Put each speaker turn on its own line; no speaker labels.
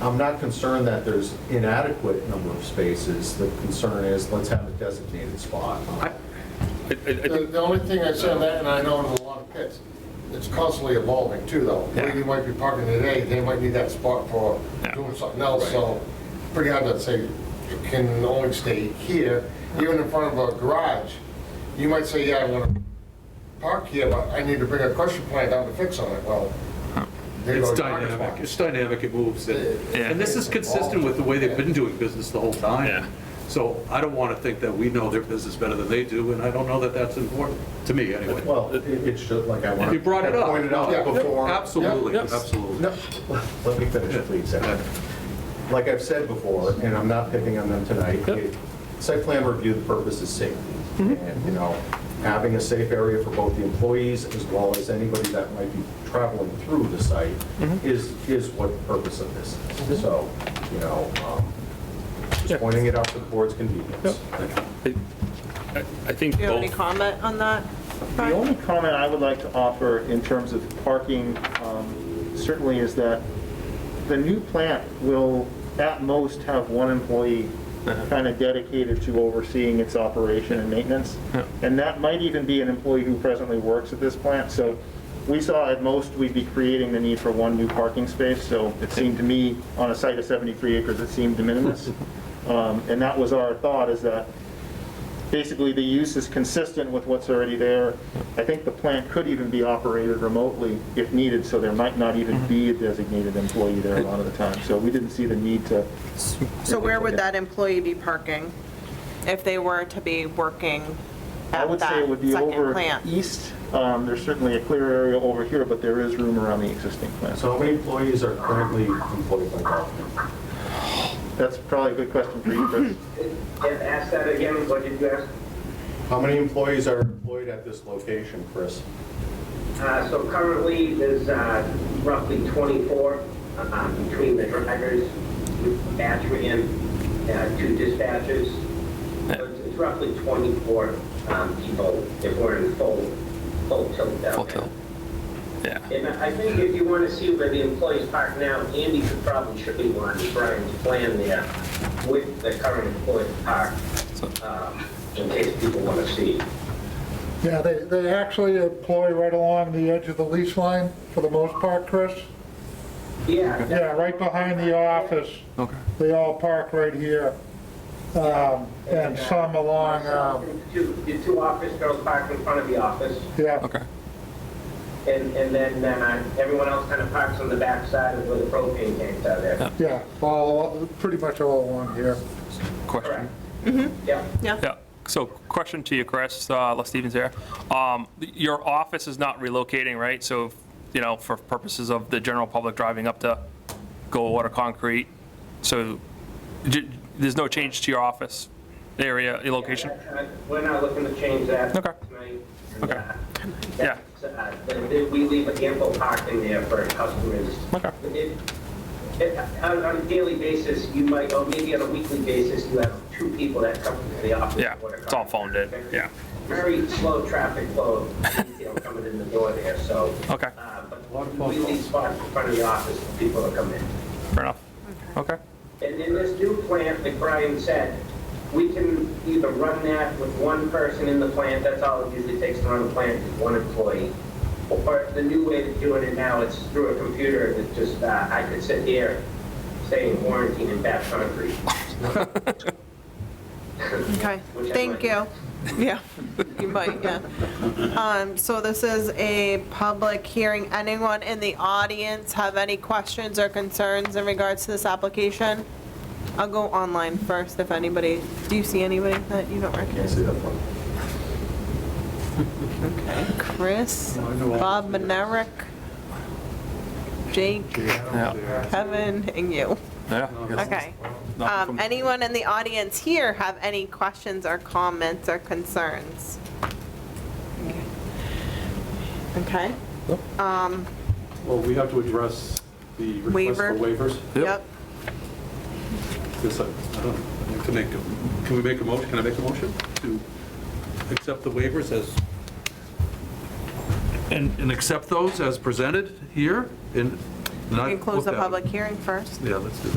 I'm not concerned that there's inadequate number of spaces. The concern is, let's have a designated spot.
I- I- I
The
think-
the only thing I said on that, and I know in a lot of pits, it's constantly evolving too, though. Where
Yeah.
you might be parking today, they might need that spot for
Yeah.
doing something else, so pretty hard to say you can only stay here. Even in front of a garage, you might say, yeah, I want to park here, but I need to bring a crusher plant down to fix on it. Well, there
It's
goes your parking
dynamic,
spot.
it's dynamic, it moves, and
Yeah.
and this is consistent with the way they've been doing business the whole
Yeah.
time. So I don't want to think that we know their business better than they do, and I don't know that that's important, to me, anyway.
Well, it it should, like I wanted.
You brought it
I
up.
Pointed
Yeah.
out before.
Absolutely,
Yeah.
absolutely.
No, let me finish, please. Ed. Like I've said before, and I'm not picking on them tonight, it- site plan review, the purpose is safety. And, you know, having a safe area for both the employees as well as anybody that might be traveling through the site is, is what the purpose of this is. So, you know, um,
Yeah.
just pointing it out for the board's convenience.
I I think
Do you have any
both,
comment on that?
The only comment I would like to offer in terms of parking um, certainly is that the new plant will at most have one employee kind of dedicated to overseeing its operation and maintenance. And that might even be an employee who presently works at this plant. So we saw at most we'd be creating the need for one new parking space. So it seemed to me, on a site of 73 acres, it seemed de minimis. Um, And that was our thought, is that basically the use is consistent with what's already there. I think the plant could even be operated remotely if needed, so there might not even be a designated employee there a lot of the time. So we didn't see the need to,
So where would that employee be parking if they were to be working
I
at
would say it would
that
be
second
over
plant?
east. Um, There's certainly a clear area over here, but there is room around the existing plant.
So how many employees are currently employed by Dolphin?
That's probably a good question for you, Chris.
And ask that again, what did you ask?
How many employees are employed at this location, Chris?
Uh, So currently, there's uh, roughly 24 uh, between the drivers, battery uh two dispatchers. So It's it's roughly 24 um, people if we're in full, full tilt down
Full
there.
tilt. yeah.
And I think if you want to see where the employees park now, Andy could probably show you on Brian's plan there with the current employee park, um, in case people want to see.
Yeah, they, they actually employ right along the edge of the lease line for the most part, Chris.
Yeah.
Yeah, right behind the office.
Okay.
They all park right here. Um, and some along, um,
Two, the two office girls park in front of the office,
yeah.
Okay.
and, and then uh, everyone else kind of parks on the back side of where the propane tanks are there.
Yeah, all, pretty much all along here.
Question.
Correct. Yep.
Yeah,
Yeah, so question to you, Chris, uh, Les Stevens here. Um, Your office is not relocating, right? So, you know, for purposes of the general public driving up to go order concrete, so j- there's no change to your office area, your location?
Uh, We're not looking to change that.
Okay.
tonight.
Okay.
Uh,
Yeah.
that's, uh, th- th- We leave ample parking there for customers.
Okay.
It- it- On on a daily basis, you might, or maybe on a weekly basis, you have two people that come to the office.
Yeah,
for the
it's all phoned in,
contract.
yeah.
Very slow traffic flow, you know, coming in the door there, so.
Okay.
uh, But we leave spots in front of the office for people to come in.
Fair enough. Okay,
And in this new plant, like Brian said, we can either run that with one person in the plant, that's all it usually takes to run a plant, is one employee. Or the new way of doing it now, it's through a computer, it's just, uh, I could sit here saying quarantine and batch concrete.
Okay,
Which I
thank
might.
you. Yeah, you might, yeah. Um, So this is a public hearing. Anyone in the audience have any questions or concerns in regards to this application? I'll go online first if anybody, do you see anybody that you don't
Can't
recognize?
see that one.
Chris, Bob Manerick, Jake, Kevin, and you. Okay. Um, Anyone in the audience here have any questions or comments or concerns? Okay, Um,
Well, we have to address the request for
Waiver.
waivers.
yep.
Yes, I I don't, I have to make, a- can we make a motion, can I make a motion to accept the waivers as, and, and accept those as presented here? And
You can close the public hearing first.
Yeah, let's do that.